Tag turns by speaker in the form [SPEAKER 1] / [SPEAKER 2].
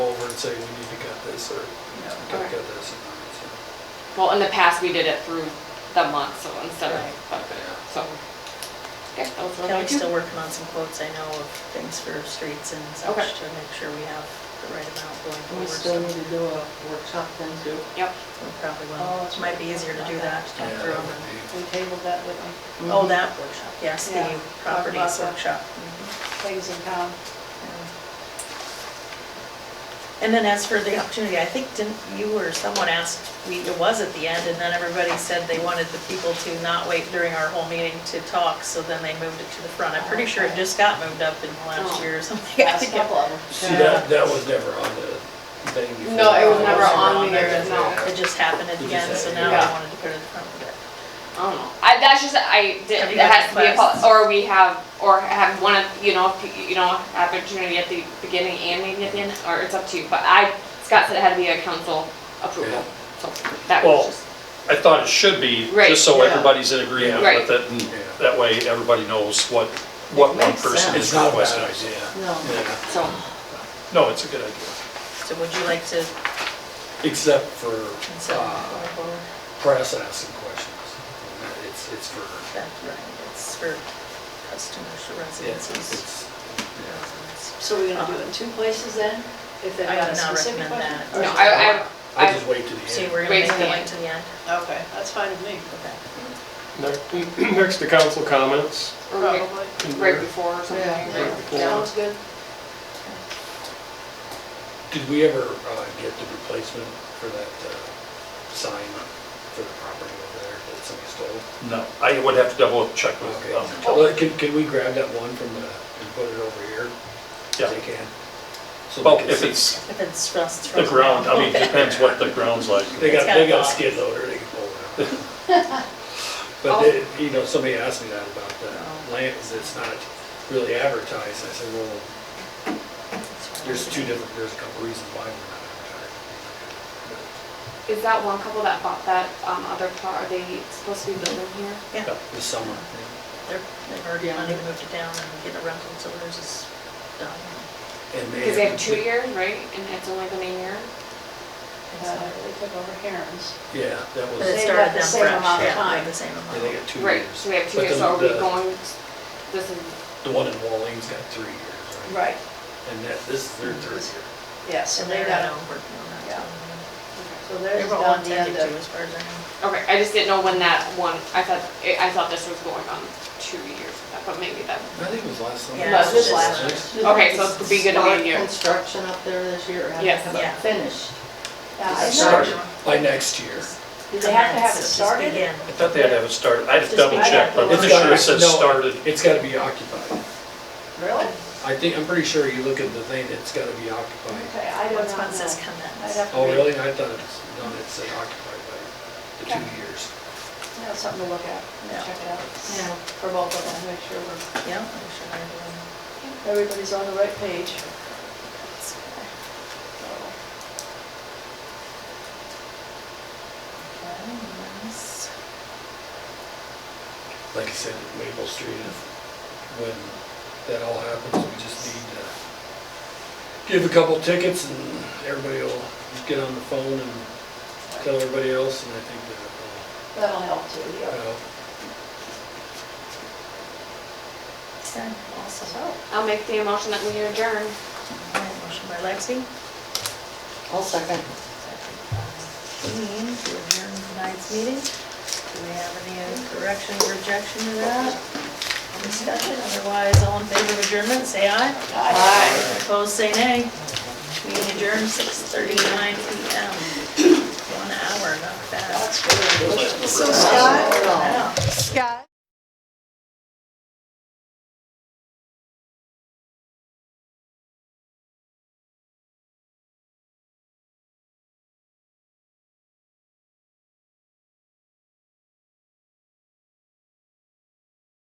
[SPEAKER 1] say we need to cut this or we gotta cut this. amount,
[SPEAKER 2] Well, in the past, we did it through the month, so instead of, but, so. Okay, that was really
[SPEAKER 3] Kelly's
[SPEAKER 2] good.
[SPEAKER 3] still working on some quotes, I know, of things for streets and such
[SPEAKER 2] Okay.
[SPEAKER 3] to make sure we have the right amount going forward.
[SPEAKER 4] We still
[SPEAKER 3] so
[SPEAKER 4] need to do a workshop then too.
[SPEAKER 2] Yep,
[SPEAKER 3] We probably
[SPEAKER 4] Oh,
[SPEAKER 3] will, it might be easier to do that.
[SPEAKER 1] so. Yeah, that would be-
[SPEAKER 3] through-
[SPEAKER 4] We tabled that with
[SPEAKER 3] Oh, that workshop, yes, the
[SPEAKER 4] Yeah, talk about
[SPEAKER 3] properties
[SPEAKER 4] that.
[SPEAKER 3] workshop.
[SPEAKER 4] things in town.
[SPEAKER 3] And then as for the opportunity, I think didn't, you or someone asked, we- it was at the end, and then everybody said they wanted the people to not wait during our whole meeting to talk, so then they moved it to the front. I'm pretty sure it just got moved up in the last
[SPEAKER 2] Oh.
[SPEAKER 3] year or something. I think it-
[SPEAKER 1] See, that, that was never on the thing before.
[SPEAKER 2] No, it was
[SPEAKER 3] never on there,
[SPEAKER 2] no.
[SPEAKER 3] It just happened at the
[SPEAKER 1] Did you
[SPEAKER 3] end,
[SPEAKER 1] say-
[SPEAKER 3] so now
[SPEAKER 2] Yeah.
[SPEAKER 3] I wanted to put it in front of it.
[SPEAKER 2] I don't know. I, that's just, I
[SPEAKER 3] Have
[SPEAKER 2] did,
[SPEAKER 3] you
[SPEAKER 2] there
[SPEAKER 3] got
[SPEAKER 2] has to be a,
[SPEAKER 3] requests?
[SPEAKER 2] pol- or we have, or have one of, you know, if you- you know, opportunity at the beginning and maybe at the end, or it's up to you, but I, Scott said it had to be a council approval, so that
[SPEAKER 5] Well,
[SPEAKER 2] was just.
[SPEAKER 5] I thought it should be,
[SPEAKER 2] Right.
[SPEAKER 5] just so
[SPEAKER 4] Yeah.
[SPEAKER 5] everybody's in agreement
[SPEAKER 2] Right.
[SPEAKER 5] with it, and
[SPEAKER 1] Yeah.
[SPEAKER 5] that way everybody knows what, what one
[SPEAKER 4] makes
[SPEAKER 5] person
[SPEAKER 4] sense.
[SPEAKER 5] is
[SPEAKER 1] It's not a bad
[SPEAKER 5] requesting.
[SPEAKER 1] idea.
[SPEAKER 4] No.
[SPEAKER 1] Yeah.
[SPEAKER 2] So,
[SPEAKER 5] No, it's a good idea.
[SPEAKER 3] So would you like to
[SPEAKER 1] Except for
[SPEAKER 3] consider
[SPEAKER 1] uh,
[SPEAKER 3] going forward?
[SPEAKER 1] press asking questions. And that- It's, it's for,
[SPEAKER 3] That's right, it's for customers, for
[SPEAKER 1] yeah, it's,
[SPEAKER 3] residences.
[SPEAKER 1] it's, yeah.
[SPEAKER 4] So we're gonna do it in two places then? If they've
[SPEAKER 3] I
[SPEAKER 4] got a
[SPEAKER 3] would not
[SPEAKER 4] specific
[SPEAKER 3] recommend that.
[SPEAKER 4] question?
[SPEAKER 2] no, I, I,
[SPEAKER 1] I'll just
[SPEAKER 2] I,
[SPEAKER 1] wait to the
[SPEAKER 3] See,
[SPEAKER 1] end.
[SPEAKER 3] we're gonna
[SPEAKER 2] Wait
[SPEAKER 3] make
[SPEAKER 2] till
[SPEAKER 3] it
[SPEAKER 2] the
[SPEAKER 3] like
[SPEAKER 2] end.
[SPEAKER 3] to the end.
[SPEAKER 4] Okay, that's fine with me.
[SPEAKER 3] Okay.
[SPEAKER 6] Ne- Next to council comments.
[SPEAKER 2] or right-
[SPEAKER 4] Probably.
[SPEAKER 2] right before or something,
[SPEAKER 4] Yeah,
[SPEAKER 2] right?
[SPEAKER 4] Sounds good.
[SPEAKER 1] Did we ever uh, get the replacement for that uh, sign for the property over there that somebody stole?
[SPEAKER 5] No, I would have to double check with, um,
[SPEAKER 1] Okay, well, can, can we grab that one from the, and put it over here? if
[SPEAKER 5] Yeah.
[SPEAKER 1] They can. So
[SPEAKER 5] well,
[SPEAKER 1] they can
[SPEAKER 5] if
[SPEAKER 1] see.
[SPEAKER 5] it's
[SPEAKER 3] If it's rust.
[SPEAKER 5] the ground, I mean, it depends what the ground's like.
[SPEAKER 1] They got,
[SPEAKER 3] It's got
[SPEAKER 1] they got a
[SPEAKER 3] blocks.
[SPEAKER 1] skid loader, they can pull it out. But they, you know, somebody asked me that about the land, is it's not really advertised, I said, well, there's two different, there's a couple reasons why we're not advertising.
[SPEAKER 2] Is that one couple that bought that, um, other car, are they supposed to be building here?
[SPEAKER 3] Yeah, they're-
[SPEAKER 1] This summer.
[SPEAKER 3] they've already wanted to move it down and get a rental, so theirs is done.
[SPEAKER 4] Uh,
[SPEAKER 1] And
[SPEAKER 2] Because they have two years, right, and it's only been a year?
[SPEAKER 4] Uh, They took over Karen's.
[SPEAKER 1] Yeah, that
[SPEAKER 3] But
[SPEAKER 1] was,
[SPEAKER 3] it
[SPEAKER 4] They've
[SPEAKER 3] started
[SPEAKER 4] got
[SPEAKER 3] them
[SPEAKER 4] the same
[SPEAKER 3] fresh,
[SPEAKER 4] amount of
[SPEAKER 3] yeah, they
[SPEAKER 4] time.
[SPEAKER 3] have the same
[SPEAKER 1] yeah, they
[SPEAKER 3] amount.
[SPEAKER 1] got two years.
[SPEAKER 2] Right, so we have two
[SPEAKER 1] But
[SPEAKER 2] years,
[SPEAKER 1] the-
[SPEAKER 2] so are we
[SPEAKER 1] the-
[SPEAKER 2] going, this is,
[SPEAKER 1] The one in Walling's got three years, right?
[SPEAKER 4] Right,
[SPEAKER 1] And that, this is their third year.
[SPEAKER 4] yeah, so
[SPEAKER 3] And
[SPEAKER 4] they
[SPEAKER 3] they're now
[SPEAKER 4] got,
[SPEAKER 3] working on
[SPEAKER 4] Yeah.
[SPEAKER 3] that.
[SPEAKER 4] so
[SPEAKER 3] They
[SPEAKER 4] there's
[SPEAKER 3] were on
[SPEAKER 4] down
[SPEAKER 3] to
[SPEAKER 4] the end
[SPEAKER 3] do
[SPEAKER 4] of,
[SPEAKER 3] as far as I know.
[SPEAKER 2] okay, I just didn't know when that one, I thought, I thought this was going on two years, but maybe that,
[SPEAKER 1] I think it was last summer.
[SPEAKER 3] Yeah,
[SPEAKER 4] it was last
[SPEAKER 2] Okay, so it could be good to be
[SPEAKER 4] here. Construction up there this year.
[SPEAKER 2] Yes.
[SPEAKER 3] Yeah.
[SPEAKER 4] Finished.
[SPEAKER 1] Start by next year.
[SPEAKER 4] Do they have to
[SPEAKER 3] Commence,
[SPEAKER 4] have it
[SPEAKER 3] just
[SPEAKER 4] started?
[SPEAKER 3] begin.
[SPEAKER 5] I thought they had to have it started, I'd have to double
[SPEAKER 3] Just-
[SPEAKER 5] check, but I'm
[SPEAKER 1] It's
[SPEAKER 5] pretty sure
[SPEAKER 1] gotta-
[SPEAKER 5] it says
[SPEAKER 1] no,
[SPEAKER 5] started.
[SPEAKER 1] It's gotta be occupied.
[SPEAKER 4] Really?
[SPEAKER 1] I think, I'm pretty sure you look at the thing, it's gotta be occupied.
[SPEAKER 4] Okay, I don't
[SPEAKER 3] What's one says
[SPEAKER 4] know. I'd
[SPEAKER 3] commence?
[SPEAKER 4] have to
[SPEAKER 1] Oh,
[SPEAKER 4] read.
[SPEAKER 1] really? I thought it's, no, it said occupied by the
[SPEAKER 2] Okay.
[SPEAKER 1] two years.
[SPEAKER 4] Yeah, something to look at,
[SPEAKER 3] Yeah.
[SPEAKER 4] check it out. Yeah. For both of them, make sure we're,
[SPEAKER 3] Yeah, I'm sure they're doing.
[SPEAKER 4] everybody's on the right page.
[SPEAKER 3] Okay, nice.
[SPEAKER 1] Like I said, Maple Street, if, when that all happens, we just need to give a couple tickets and everybody will get on the phone and tell everybody else, and I think that, uh,
[SPEAKER 4] That'll help too, yeah.
[SPEAKER 1] well,
[SPEAKER 3] Okay, awesome.
[SPEAKER 4] So,
[SPEAKER 2] I'll make the motion that we adjourn.
[SPEAKER 3] All right, Motion by Lexi.
[SPEAKER 4] I'll second.
[SPEAKER 3] Dean, to adjourn tonight's meeting. Do we have any correction, rejection to that? Any Discussion, otherwise, all in favor of adjournment, say aye.
[SPEAKER 4] Aye.
[SPEAKER 3] Opposed, say nay. Meeting adjourned, 6:39 PM. One hour, not bad.
[SPEAKER 4] So Scott,
[SPEAKER 3] Wow.
[SPEAKER 7] Scott.